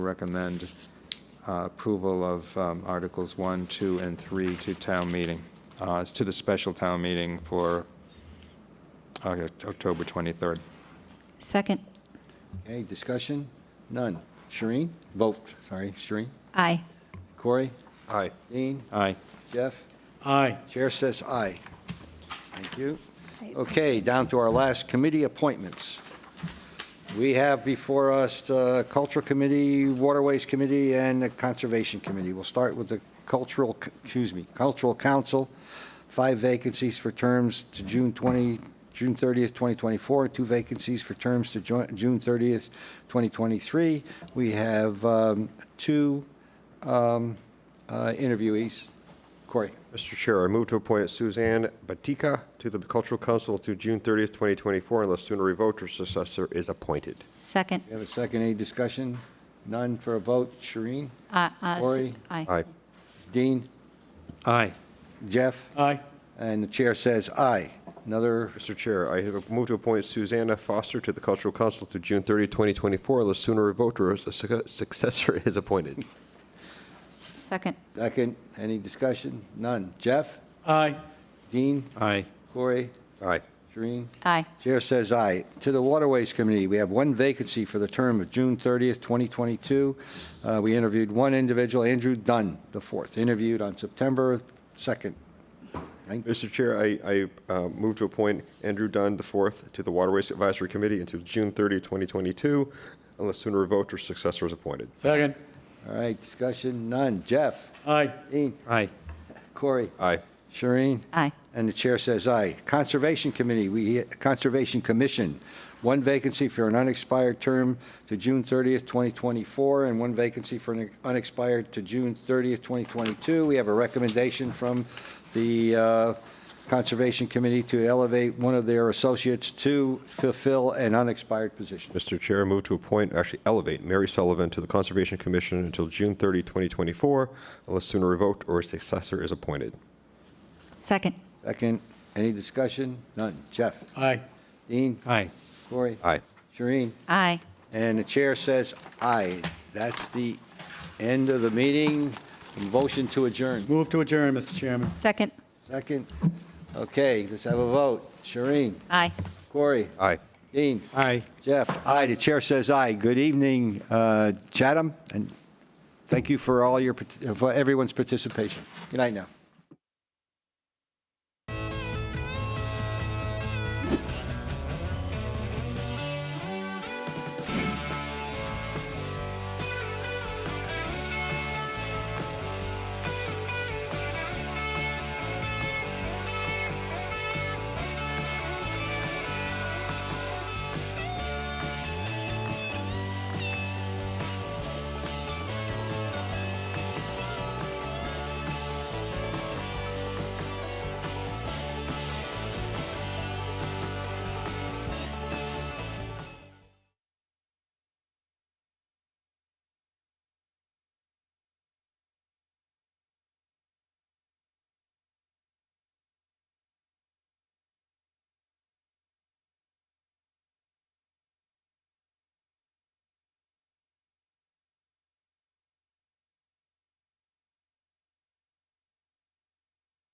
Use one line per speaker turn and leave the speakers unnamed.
recommend uh, approval of um, Articles 1, 2, and 3 to town meeting. Uh, It's to the special town meeting for uh, October 23rd.
Second.
Okay, discussion? None. Shereen? Vote, sorry, Shereen?
Aye.
Corey?
Aye.
Dean?
Aye.
Jeff?
Aye.
Chair says aye. Thank you. Okay, down to our last committee appointments. We have before us the Cultural Committee, Waterways Committee, and the Conservation Committee. We'll start with the Cultural, excuse me, Cultural Council, five vacancies for terms to June 20, June 30th, 2024, two vacancies for terms to Jo- June 30th, 2023. We have um, two um, uh, interviewees. Corey?
Mr. Chair, I move to appoint Suzanne Batika to the Cultural Council through June 30th, 2024, unless sooner revoked or successor is appointed.
Second.
We have a second, any discussion? None for a vote, Shereen?
Uh, uh, s-
Lori?
Aye.
Aye.
Dean?
Aye.
Jeff?
Aye.
And the chair says aye. Another,
Mr. Chair, I have moved to appoint Susanna Foster to the Cultural Council through June 30th, 2024, unless sooner revoked or a suc- successor is appointed.
Second.
second, any discussion? None. Jeff?
Aye.
Dean?
Aye.
Corey?
Aye.
Shereen?
Aye.
Chair says aye. To the Waterways Committee, we have one vacancy for the term of June 30th, 2022. Uh, We interviewed one individual, Andrew Dunn, the fourth, interviewed on September 2nd. Thank-
Mr. Chair, I, I uh, move to appoint Andrew Dunn IV to the Waterways Advisory Committee until June 30th, 2022, unless sooner revoked or successor is appointed.
Second.
All right, discussion? None. Jeff?
Aye.
Dean?
Aye.
Corey?
Aye.
Shereen?
Aye.
And the chair says aye. Conservation Committee, we, Conservation Commission, one vacancy for an unexpired term to June 30th, 2024, and one vacancy for an unexpired to June 30th, 2022. We have a recommendation from the uh, Conservation Committee to elevate one of their associates to fulfill an unexpired position.
Mr. Chair, move to appoint, actually elevate Mary Sullivan to the Conservation Commission until June 30, 2024, unless sooner revoked or a successor is appointed.
Second.
Second, any discussion? None. Jeff?
Aye.
Dean?
Aye.
Corey?
Aye.
Shereen?
Aye.
And the chair says aye. That's the end of the meeting. Motion to adjourn.
Move to adjourn, Mr. Chairman.
Second.
Second. Okay, let's have a vote. Shireen,
Aye.
Corey,
Aye.
Dean,
Aye.
Jeff, aye. The chair says aye. Good evening, uh, Chatham, and thank you for all your, parti- for everyone's participation. Good night now.